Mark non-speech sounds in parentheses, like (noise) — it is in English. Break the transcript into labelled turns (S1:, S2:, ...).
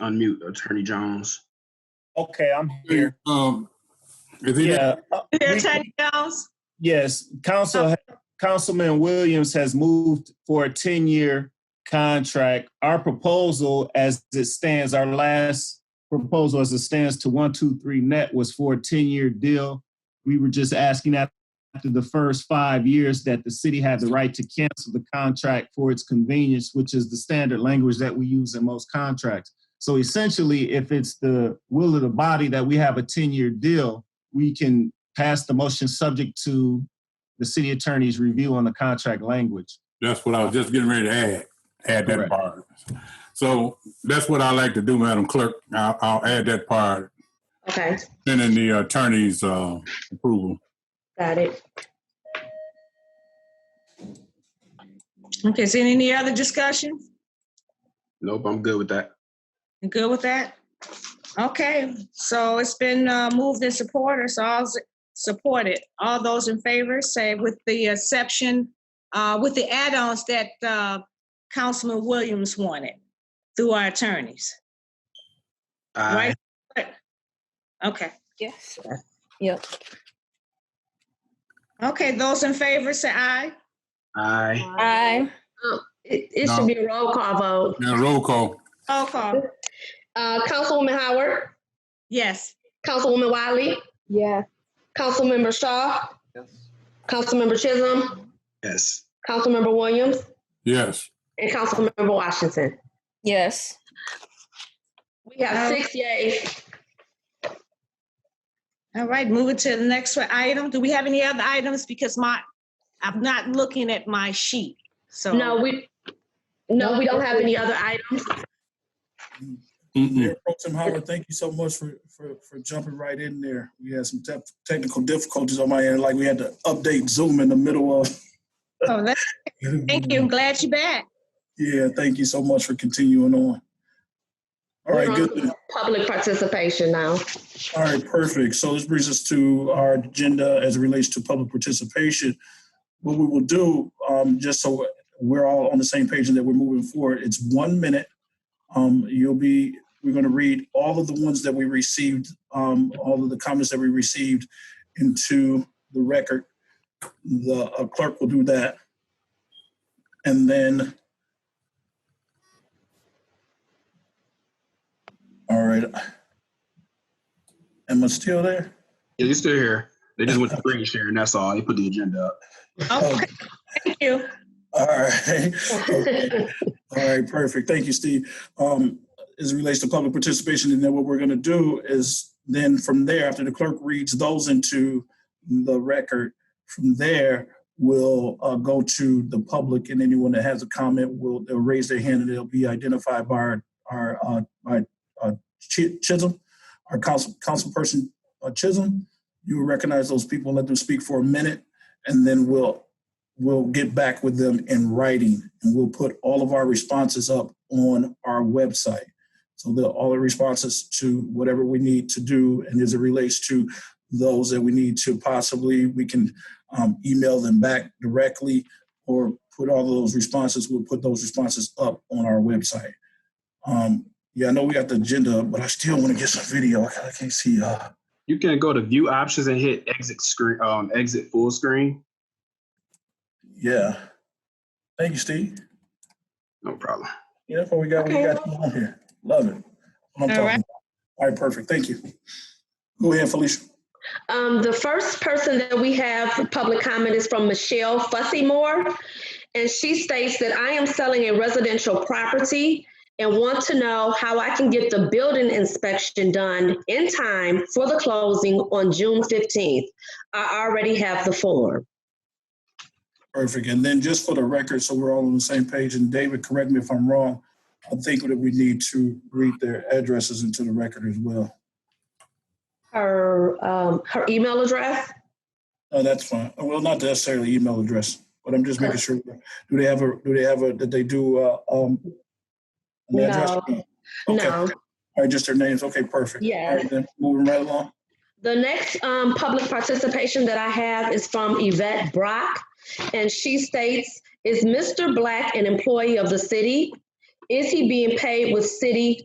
S1: Unmute Attorney Jones.
S2: Okay, I'm here.
S3: Um, is he
S2: Yeah. uh,
S4: Mayor
S2: we-
S4: Attorney Jones?
S2: Yes, Council, Councilman Williams has moved for a ten-year contract. Our proposal as it stands, our last proposal as it stands to one, two, three net was for a ten-year deal. We were just asking that after the first five years that the city had the right to cancel the contract for its convenience, which is the standard language that we use in most contracts. So essentially, if it's the will of the body that we have a ten-year deal, we can pass the motion subject to the city attorney's review on the contract language.
S3: That's what I was just getting ready to add, add that
S2: Correct.
S3: part. So that's what I like to do, Madam Clerk. I'll, I'll add that part,
S4: Okay,
S3: pending the attorney's, uh, approval.
S4: got it. Okay, is there any other discussion?
S1: Nope, I'm good with that.
S4: You Good with that? Okay, so it's been uh, moved and supported, so all supported. All those in favor, say with the exception, uh, with the add-ons that uh, Councilman Williams wanted through our attorneys,
S1: Aye.
S4: right? Okay,
S5: Yes. Yep.
S4: okay, those in favor, say aye.
S1: Aye.
S5: Aye.
S6: It, it
S3: No.
S6: should be a roll call vote.
S3: Now, roll call.
S4: Roll call,
S6: Uh, Councilwoman Howard,
S4: yes.
S6: Councilwoman Wiley,
S5: Yeah.
S6: Councilmember Shaw, Councilmember Chisholm,
S1: Yes.
S6: Councilmember Williams,
S3: Yes.
S6: and Councilmember Washington.
S5: Yes.
S6: We have six yays.
S4: All right, moving to the next item. Do we have any other items? Because my, I'm not looking at my sheet, so.
S6: No, we, no, we don't have any other items.
S3: Mm-mm.
S7: Mayor Pro Tim Howard, thank you so much for, for, for jumping right in there. We had some tep- technical difficulties on my end, like we had to update Zoom in the middle of.
S4: Oh, that's- (laughs) Thank you, I'm glad you're back.
S7: Yeah, thank you so much for continuing on. All right,
S6: We're on
S7: good.
S6: Public participation now.
S7: All right, perfect. So this brings us to our agenda as it relates to public participation. What we will do, um, just so we're all on the same page and that we're moving forward, it's one minute. Um, you'll be, we're going to read all of the ones that we received, um, all of the comments that we received into the record. The uh, clerk will do that. And then. All right. Am I still there?
S1: Yeah, you still here. They just went to screen share and that's all. They put the agenda up.
S4: Okay, Oh, thank you.
S7: All right. Okay. All right, perfect. Thank you, Steve. Um, as it relates to public participation, and then what we're gonna do is then from there, after the clerk reads those into the record, from there, we'll uh, go to the public and anyone that has a comment will, they'll raise their hand and they'll be identified by our, our, uh, by, uh, Chi- Chisholm, our council, councilperson uh, Chisholm. You will recognize those people, let them speak for a minute, and then we'll we'll get back with them in writing and we'll put all of our responses up on our website. So the, all the responses to whatever we need to do and as it relates to those that we need to possibly, we can um, email them back directly or put all those responses, we'll put those responses up on our website. Um, yeah, I know we got the agenda, up, but I still want to get some video. I can't- I can't see. Uh,
S1: You can go to view options and hit exit screen, um, exit full screen.
S7: yeah. Thank you, Steve.
S1: No problem.
S7: Yeah, that's what we got. We
S4: Okay.
S7: got you on here. Love it. What I'm
S4: All
S7: talking
S4: right.
S7: about. All right, perfect. Thank you. Go ahead, Felicia.
S6: Um, the first person that we have for public comment is from Michelle Fussymore. And she states that I am selling a residential property and want to know how I can get the building inspection done in time for the closing on June fifteenth. I already have the form.
S7: Perfect. And then just for the record, so we're all on the same page, and David, correct me if I'm wrong, I think that we need to read their addresses into the record as well.
S6: Her, um, her email address?
S7: No, that's fine. Well, not necessarily email address, but I'm just making sure. Do they have a, do they have a, that they do, uh, um, an address?
S6: No.
S7: Okay.
S6: No.
S7: All right, just their names. Okay, perfect.
S6: Yeah.
S7: All right, then, moving right along.
S6: The next um, public participation that I have is from Yvette Brock, and she states, "Is Mr. Black an employee of the city? Is he being paid with city